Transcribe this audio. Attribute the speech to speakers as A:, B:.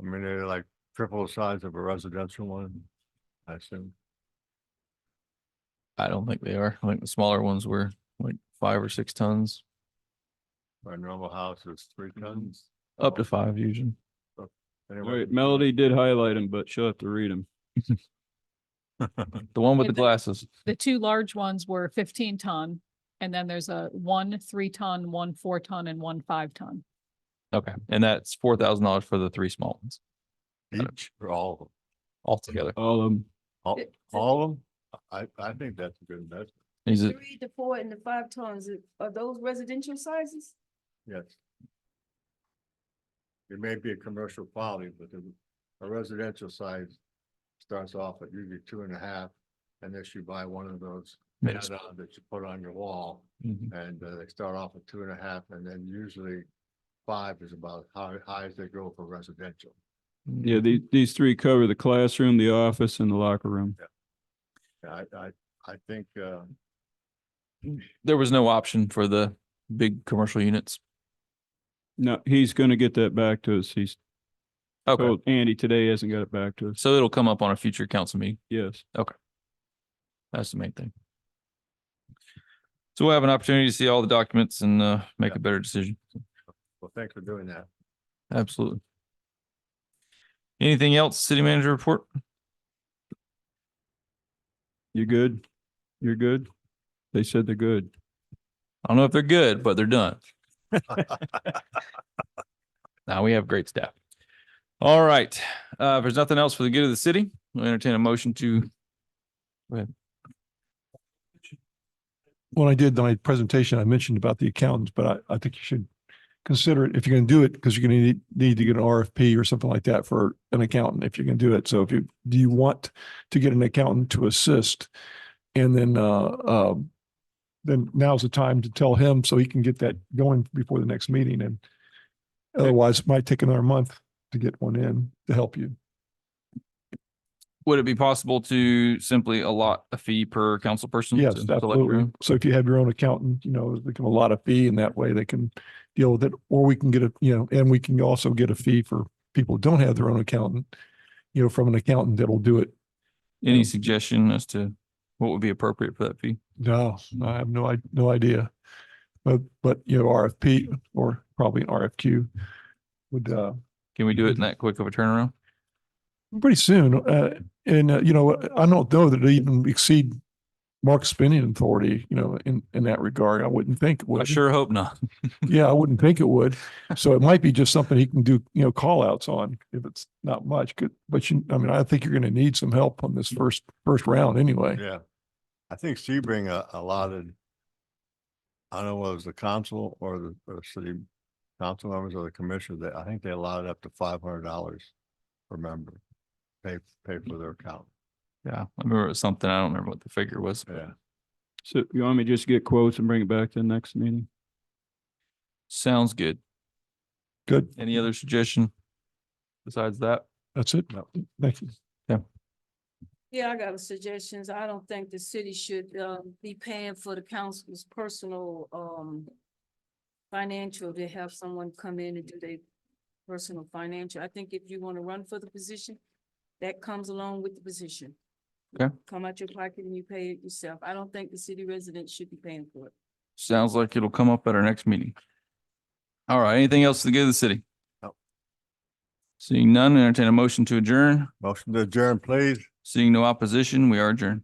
A: I mean, they're like triple the size of a residential one, I assume.
B: I don't think they are. I think the smaller ones were like five or six tons,
A: Our normal house is three tons.
B: up to five usually.
A: Anyway,
C: Mm-hmm. All right, Melody did highlight them, but she'll have to read them.
B: The one with
D: And
B: the
D: the-
B: glasses.
D: The two large ones were fifteen ton, and then there's a one three ton, one four ton, and one five ton.
B: Okay. And that's four thousand dollars for the three small ones
A: Each or all of them,
B: altogether.
C: All of them.
A: all,
E: It-
A: all of them? I, I think that's a good investment,
B: Is
E: The
B: it,
E: three, the four and the five tons, are- are those residential sizes?
A: yes. It may be a commercial quality, but the- a residential size starts off at usually two and a half. Unless you buy one of those
B: Yeah,
A: add-on that you put on your wall.
B: Mhm.
A: And uh, they start off at two and a half and then usually five is about how high as they go for residential.
B: Mm-hmm.
C: Yeah, these, these three cover the classroom, the office and the locker room.
A: I, I, I think, uh,
B: there was no option for the big commercial units?
C: No, he's going to get that back to us. He's
B: Okay.
C: told Andy today he hasn't got it back to us.
B: So it'll come up on a future council meeting.
C: Yes.
B: That's the main thing. So we'll have an opportunity to see all the documents and uh, make
A: Yeah.
B: a better decision.
A: well, thanks for doing that.
B: Absolutely. Anything else, city manager report?
C: You good? You're good? They said they're good.
B: I don't know if they're good, but they're done. Now we have great staff. All right, uh, if there's nothing else for the good of the city, we'll entertain a motion to,
F: when I did my presentation, I mentioned about the accountants, but I, I think you should consider it if you're going to do it, because you're going to need, need to get an RFP or something like that for an accountant if you can do it. So if you, do you want to get an accountant to assist? And then, uh, uh, then now's the time to tell him so he can get that going before the next meeting and otherwise it might take another month to get one in to help you.
B: would it be possible to simply allot a fee per council person?
F: Yes,
B: to select your
F: absolutely.
B: own?
F: So if you have your own accountant, you know, they can allot a fee and that way they can deal with it. Or we can get a, you know, and we can also get a fee for people who don't have their own accountant, you know, from an accountant that'll do it.
B: Any suggestion as to what would be appropriate for that fee?
F: No, I have no, I, no idea. But, but, you know, RFP or probably an RFQ would, uh,
B: Can we do it in that quick of a turnaround?
F: pretty soon. Uh, and, uh, you know, I don't know that it even exceed Mark's spending authority, you know, in, in that regard. I wouldn't think. it
B: I
F: would.
B: sure hope not.
F: Yeah, I wouldn't think it would. So it might be just something he can do, you know, call outs on if it's not much. Good, but you, I mean, I think you're going to need some help on this first, first round anyway.
A: Yeah. I think Sebring uh, allotted, I don't know whether it was the council or the, or the city council members or the commissioner, that I think they allotted up to five hundred dollars per member. Pay, pay for their account.
B: Yeah, I remember it was something. I don't remember what the figure was. but-
A: Yeah.
C: So you want me to just get quotes and bring it back to the next meeting?
B: Sounds good.
F: Good.
B: Any other suggestion besides that?
F: That's it. Thank you.
E: Yeah, I got a suggestions. I don't think the city should, um, be paying for the council's personal, um, financial, to have someone come in and do their personal financial. I think if you want to run for the position, that comes along with the position.
B: Okay.
E: Come out your pocket and you pay it yourself. I don't think the city residents should be paying for it.
B: Sounds like it'll come up at our next meeting. All right, anything else to give the city?
A: No.
B: Seeing none, entertain a motion to adjourn.
A: Motion to adjourn, please.
B: Seeing no opposition, we are adjourned.